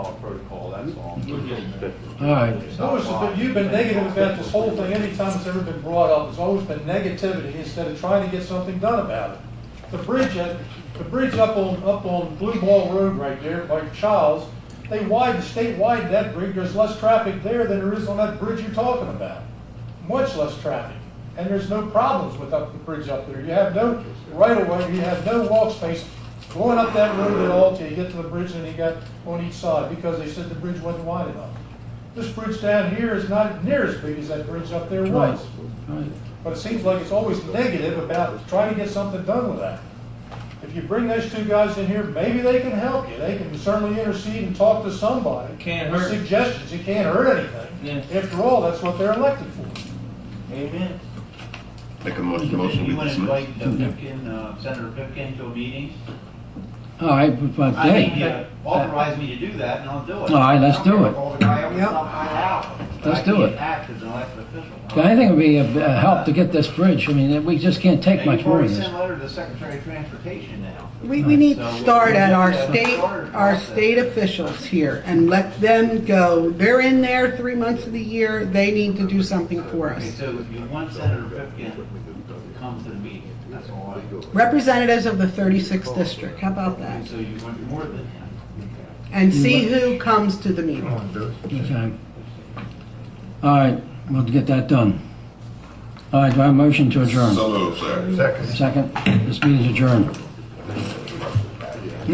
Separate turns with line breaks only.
that's all.
We're getting there.
All right.
Lewis, has been- you've been negative about this whole thing, anytime it's ever been brought up, it's always been negativity instead of trying to get something done about it. The bridge, at- the bridge up on, up on Blue Ball Road right there by Charles, they widened, the state widened that bridge, there's less traffic there than there is on that bridge you're talking about. Much less traffic, and there's no problems with up the bridge up there, you have no right of way, you have no walk space going up that road at all till you get to the bridge and you got on each side, because they said the bridge wasn't wide enough. This bridge down here is not near as big as that bridge up there
Right.
was.
Right.
But it seems like it's always negative about trying to get something done with that. If you bring those two guys in here, maybe they can help you. They can certainly intercede and talk to somebody.
Can't
With
hurt.
Suggestions, it can't hurt anything.
Yeah.
After all, that's what they're elected for.
Amen.
Make a mo- motion
You
to
want to
dismiss.
invite uh, Pipkin, uh, Senator Pipkin to a meeting?
All right, but
I think you
then,
authorize me to do that, and I'll do it.
All right, let's do it.
Call the guy up and knock my out. But
Let's
I
do
can't
it.
act as an elected official.
I think it would be a a help to get this bridge, I mean, we just can't take
And
much
you've
more
already
of this.
sent a letter to the Secretary of Transportation now.
We, we need to
So,
start at our
yeah,
state,
start.
our state officials here and let them go. They're in there three months of the year, they need to do something for
Okay,
us.
so if you want Senator Pipkin to come to the meeting, that's all I do.
Representatives of the 36th district, how about that?
So you want more than him.
And see
Mm-hmm.
who comes to the meeting.
Okay. All right, we'll get that done. All right, do I have a motion to adjourn?
So moved, sir.
Second, this meeting is adjourned.